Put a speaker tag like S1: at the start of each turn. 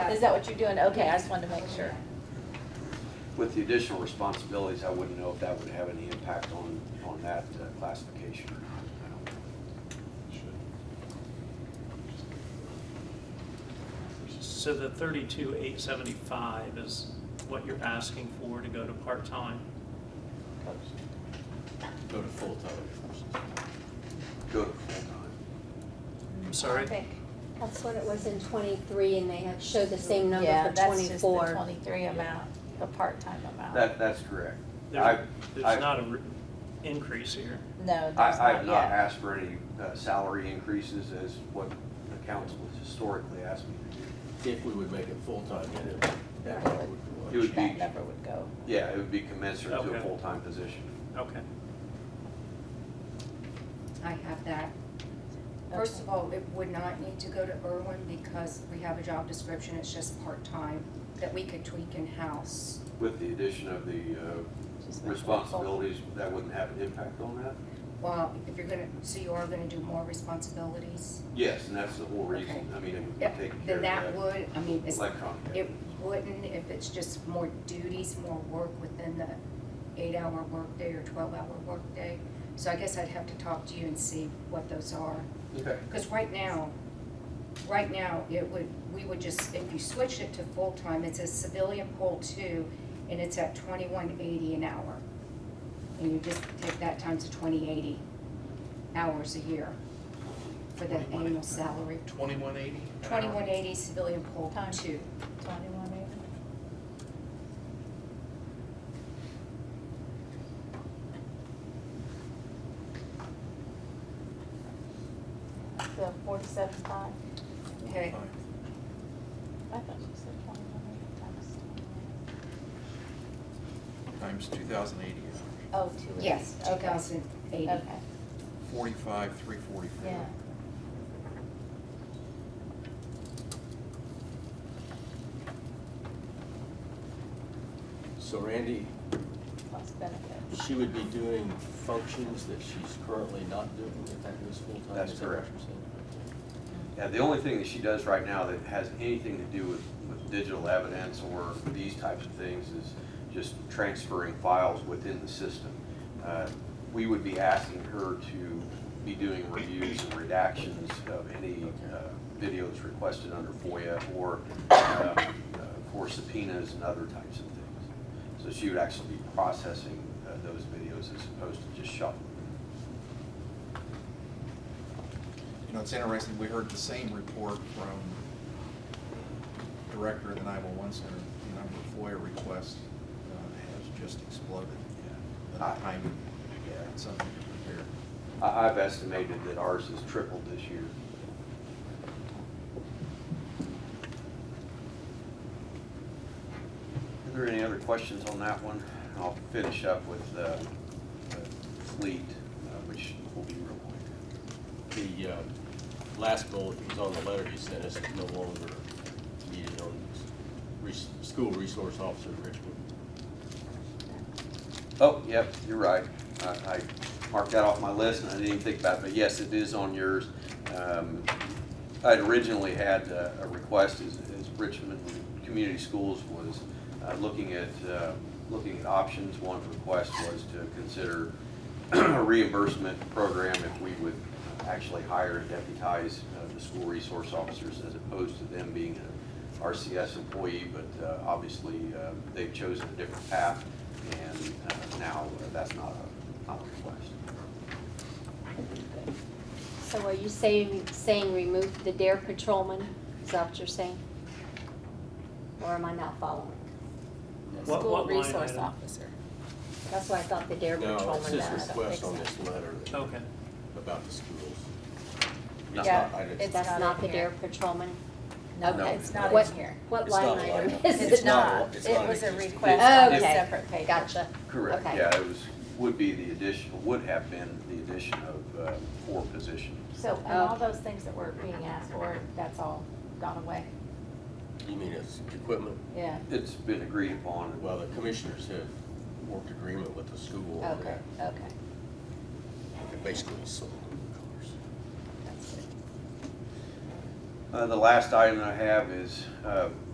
S1: Is that what you're doing? Okay, I just wanted to make sure.
S2: With the additional responsibilities, I wouldn't know if that would have any impact on, on that uh, classification or not. I don't know.
S3: So the thirty-two, eight seventy-five is what you're asking for to go to part-time?
S4: Go to full-time.
S2: Go to full-time.
S3: I'm sorry?
S1: Perfect.
S5: That's what it was in twenty-three, and they had showed the same number
S1: Yeah,
S5: for
S1: that's just the
S5: twenty-four.
S1: twenty-three amount, the part-time amount.
S2: That, that's correct. I,
S3: There's
S2: I-
S3: there's not a re- increase here.
S1: No,
S2: I,
S1: there's
S2: I have
S1: not
S2: not
S1: yet.
S2: asked for any uh, salary increases as what the council has historically asked me to do.
S4: If we would make it full-time, then it- that would be what-
S2: It would be-
S1: That number would go.
S2: Yeah, it would be commensurate to a
S3: Okay.
S2: full-time position.
S3: Okay.
S6: I have that. First of all, it would not need to go to Irwin because we have a job description, it's just part-time, that we could tweak in-house.
S2: With the addition of the uh,
S1: Just make it full.
S2: responsibilities, that wouldn't have an impact on that?
S6: Well, if you're gonna, so you are gonna do more responsibilities?
S2: Yes, and that's the whole reason.
S6: Okay.
S2: I mean, it would
S6: Yep,
S2: take care
S6: Then
S2: of
S6: that
S2: that
S6: would, I mean, it's,
S2: electronic.
S6: it wouldn't if it's just more duties, more work within the eight-hour workday or twelve-hour workday. So I guess I'd have to talk to you and see what those are.
S2: Okay.
S6: Because right now, right now, it would, we would just, if you switched it to full-time, it's a civilian poll two, and it's at twenty-one eighty an hour. And you just take that times twenty eighty hours a year for the
S7: 21.80.
S6: annual salary.
S7: Twenty-one eighty?
S6: Twenty-one eighty civilian poll
S1: Time.
S6: two.
S1: Twenty-one eight. The forty-seven five?
S6: Okay,
S1: I thought you said twenty-one eight times
S7: Times two thousand eighty
S1: Oh,
S7: hours,
S1: two weeks.
S6: yes, two
S1: Okay.
S6: thousand eighty.
S1: Okay,
S7: forty-five, three forty-four.
S1: yeah.
S4: So Randy,
S1: Plus benefits.
S4: she would be doing functions that she's currently not doing if that goes full-time?
S2: That's
S4: is that what
S2: correct.
S4: you're saying?
S2: Yeah, the only thing that she does right now that has anything to do with, with digital evidence or these types of things is just transferring files within the system. Uh, We would be asking her to be doing reviews and redactions of any uh, videos requested under FOIA or, uh, uh, for subpoenas and other types of things. So she would actually be processing uh, those videos as opposed to just shuffling.
S7: You know, it's interesting, we heard the same report from Director of the nine-one-one center, the number of FOIA requests uh, has just exploded. The
S2: Ah.
S7: timing,
S2: Yeah.
S7: it's something to prepare.
S2: I, I've estimated that ours has tripled this year. Are there any other questions on that one? I'll finish up with uh, the fleet, uh, which will be real quick.
S4: The uh, last bullet that was on the letter you sent us is no longer needed on res- school resource officer at Richmond.
S2: Oh, yep, you're right. I, I marked that off my list and I didn't even think about it, but yes, it is on yours. Um, I'd originally had uh, a request as, as Richmond Community Schools was uh, looking at, uh, looking at options. One request was to consider a reimbursement program if we would actually hire and deputize uh, the school resource officers as opposed to them being an RCS employee, but uh, obviously uh, they've chosen a different path and uh, now uh, that's not a, not a request.
S5: So are you saying, saying remove the dare patrolman? Is that what you're saying? Or am I not following?
S3: What-
S1: School
S3: what line
S1: resource
S3: item?
S1: officer.
S5: That's why I thought the dare
S4: No,
S5: patrolman.
S4: it's his
S5: that-
S4: request on this letter
S2: Oh.
S4: that-
S3: Okay.
S4: about the schools.
S2: No.
S1: Yeah,
S4: I didn't-
S1: it's
S5: That's
S1: not
S5: not
S1: in
S5: the
S1: here.
S5: dare patrolman?
S1: No,
S2: Okay.
S1: it's not
S5: What-
S1: in here.
S5: What
S4: It's not
S5: line
S4: a line
S5: item
S4: item.
S5: is
S1: It's
S5: it?
S1: not,
S4: it's not
S1: it
S4: an
S1: was a
S4: existing-
S1: request on a
S5: Okay.
S1: separate page.
S5: Gotcha.
S2: Correct,
S5: Okay.
S2: yeah, it was, would be the addition, would have been the addition of uh, four positions.
S1: So, and all
S5: Oh.
S1: those things that were being asked for, that's all gone away?
S4: You mean it's equipment?
S1: Yeah.
S2: It's been agreed upon.
S4: Well, the commissioners have worked agreement with the school.
S1: Okay, okay.
S4: and Basically sold them the cars.
S1: That's good.
S2: Uh, The last item I have is uh,